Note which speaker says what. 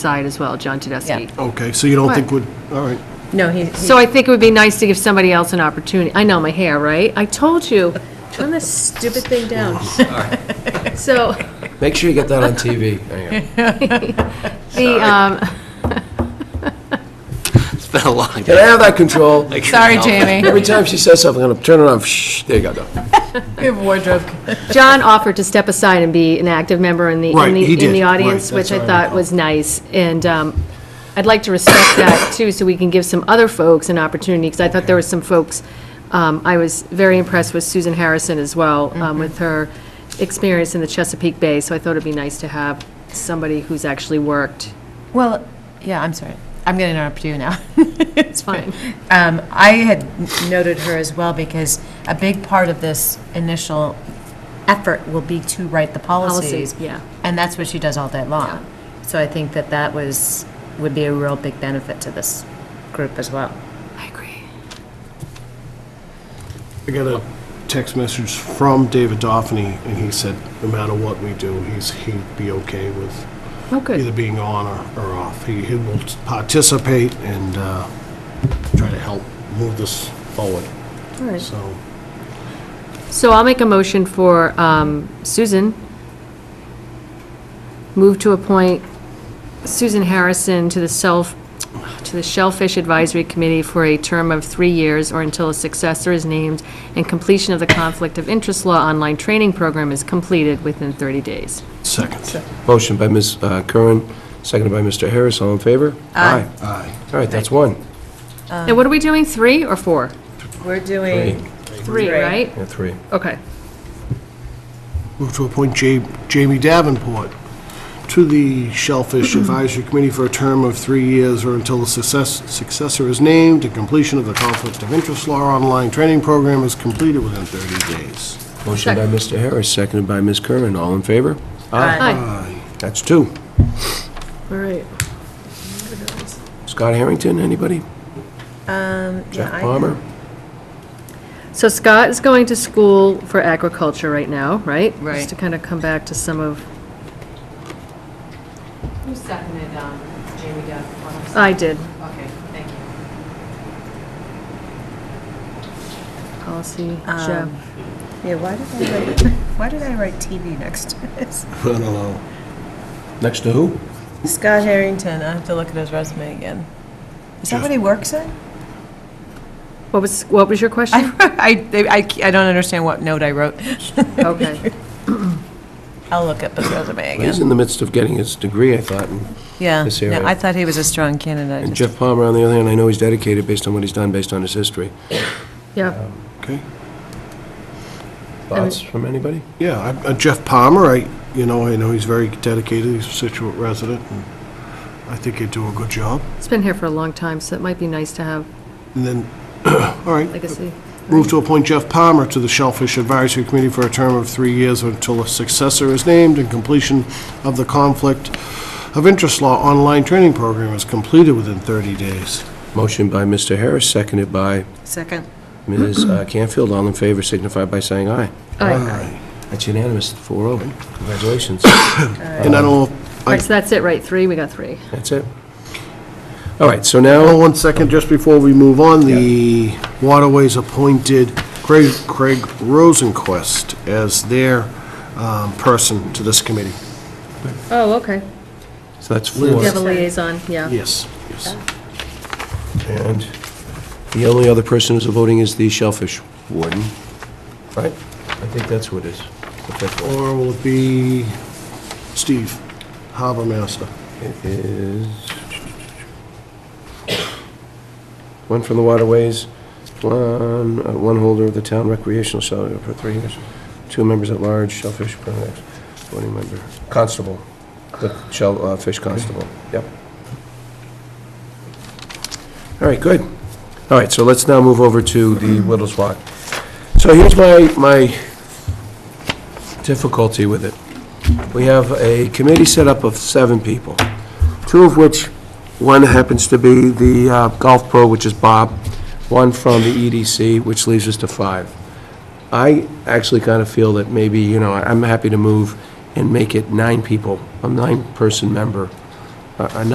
Speaker 1: side as well, John Tedeschi.
Speaker 2: Yeah.
Speaker 3: Okay, so you don't think
Speaker 1: What?
Speaker 3: would, all right.
Speaker 2: No, Oh, he,
Speaker 1: So I think it would be nice to give somebody else an opportunity. I know, my hair, right? I told you, turn this stupid thing down. So,
Speaker 4: Make sure you get that on TV. There you go.
Speaker 1: the, um,
Speaker 5: It's been a long
Speaker 4: Can I have that control?
Speaker 2: sorry, Jamie,
Speaker 4: Every time she says something, I'm gonna turn it off. Shh, there you go, though.
Speaker 2: we have wardrobe.
Speaker 1: John offered to step aside and be an active member in the, in
Speaker 3: Right, he
Speaker 1: the, in
Speaker 3: did,
Speaker 1: the
Speaker 3: right,
Speaker 1: audience,
Speaker 3: that's
Speaker 1: which I
Speaker 3: what I
Speaker 1: thought was nice. And um, I'd like to respect that too, so we can give some other folks an opportunity, because I thought there were some folks, um, I was very impressed with Susan Harrison as well, um, with her experience in the Chesapeake Bay, so I thought it'd be nice to have somebody who's actually worked.
Speaker 2: Well, yeah, I'm sorry. I'm going to interrupt you now. It's
Speaker 1: fine.
Speaker 2: Um, I had noted her as well because a big part of this initial effort will be to write the policies.
Speaker 1: Policies, yeah.
Speaker 2: And that's what she does all day long. So I think that that was, would be a real big benefit to this group as well.
Speaker 1: I agree.
Speaker 3: I got a text message from David Doffany, and he said, no matter what we do, he's, he'd be okay with
Speaker 1: Oh,
Speaker 3: either
Speaker 1: good.
Speaker 3: being on or, or off. He, he will participate and, uh, try to help move this forward,
Speaker 1: All right.
Speaker 3: so.
Speaker 1: So I'll make a motion for um, Susan. Move to appoint Susan Harrison to the self, to the Shellfish Advisory Committee for a term of three years or until a successor is named and completion of the Conflict of Interest Law online training program is completed within 30 days.
Speaker 3: Second.
Speaker 4: Motion by Ms. uh, Curran, seconded by Mr. Harris. All in favor? Aye.
Speaker 3: Aye.
Speaker 4: All right, that's one.
Speaker 1: And what are we doing, three or four?
Speaker 2: We're
Speaker 4: Three.
Speaker 2: doing,
Speaker 1: Three, right?
Speaker 4: Yeah, three.
Speaker 1: Okay.
Speaker 3: Move to appoint Ja- Jamie Davenport to the Shellfish Advisory Committee for a term of three years or until a success- successor is named and completion of the Conflict of Interest Law online training program is completed within 30 days.
Speaker 4: Motion by Mr. Harris, seconded by Ms. Curran. All in favor?
Speaker 2: Aye.
Speaker 1: Hi.
Speaker 4: That's two.
Speaker 1: All right.
Speaker 4: Scott Harrington, anybody?
Speaker 2: yeah,
Speaker 4: Jeff
Speaker 2: I-
Speaker 4: Palmer?
Speaker 1: So Scott is going to school for agriculture right now, right?
Speaker 2: Right.
Speaker 1: Just to kind of come back to some of. Who seconded, um, Jamie Duff? I did. Okay, thank you. Policy, Jeff.
Speaker 2: yeah, why did I write, why did I write TV next to this?
Speaker 3: I don't know.
Speaker 4: Next to who?
Speaker 2: Scott Harrington, I have to look at his resume again. Is that what he works in?
Speaker 1: What was, what was your question?
Speaker 2: I, I, I don't understand what note I wrote.
Speaker 1: Okay.
Speaker 2: I'll look up his resume
Speaker 4: He's
Speaker 2: again.
Speaker 4: in the midst of getting his degree, I thought. and-
Speaker 2: Yeah,
Speaker 4: this
Speaker 2: no,
Speaker 4: area.
Speaker 2: I thought he was a strong candidate. I
Speaker 4: And
Speaker 2: just-
Speaker 4: Jeff Palmer, on the other hand, I know he's dedicated based on what he's done, based on his history.
Speaker 1: Yeah,
Speaker 3: Okay.
Speaker 4: Thoughts from anybody?
Speaker 3: Yeah, I- uh, Jeff Palmer, I, you know, I know he's very dedicated, he's a Situate resident, and I think he'd do a good job.
Speaker 1: it's been here for a long time, so it might be nice to have
Speaker 3: And then, all right,
Speaker 1: legacy.
Speaker 3: Move to appoint Jeff Palmer to the Shellfish Advisory Committee for a term of three years until a successor is named and completion of the Conflict of Interest Law online training program is completed within 30 days.
Speaker 4: Motion by Mr. Harris, seconded by
Speaker 2: Second.
Speaker 4: Ms. uh, Canfield. All in favor signify by saying aye.
Speaker 1: Aye.
Speaker 4: That's unanimous, 4-0. Congratulations.
Speaker 3: And I don't, know-
Speaker 1: All
Speaker 3: I,
Speaker 1: right, so that's it, right, three, we got three.
Speaker 4: That's it. All right, so
Speaker 3: oh,
Speaker 4: now,
Speaker 3: one second, just before we move on, the Waterways appointed Craig, Craig Rosenquist as their um, person to this committee.
Speaker 1: Oh, okay.
Speaker 4: so that's
Speaker 1: You
Speaker 4: four.
Speaker 1: have a liaison, yeah.
Speaker 3: Yes, yes.
Speaker 4: And the only other person who's voting is the Shellfish Warden, right? I think that's who it is. The fifth one.
Speaker 3: Or will it be Steve, harbor master?
Speaker 4: It is... One from the waterways, one, uh, one holder of the town recreational shelter for three years, two members at large, shellfish permit, voting member, constable, the shell, uh, fish constable, yep. All right, good. All right, so let's now move over to the Whittles Walk. So here's my, my difficulty with it. We have a committee set up of seven people, two of which, one happens to be the uh, golf pro, which is Bob, one from the EDC, which leaves us to five. I actually kind of feel that maybe, you know, I'm happy to move and make it nine people, a nine-person member, a a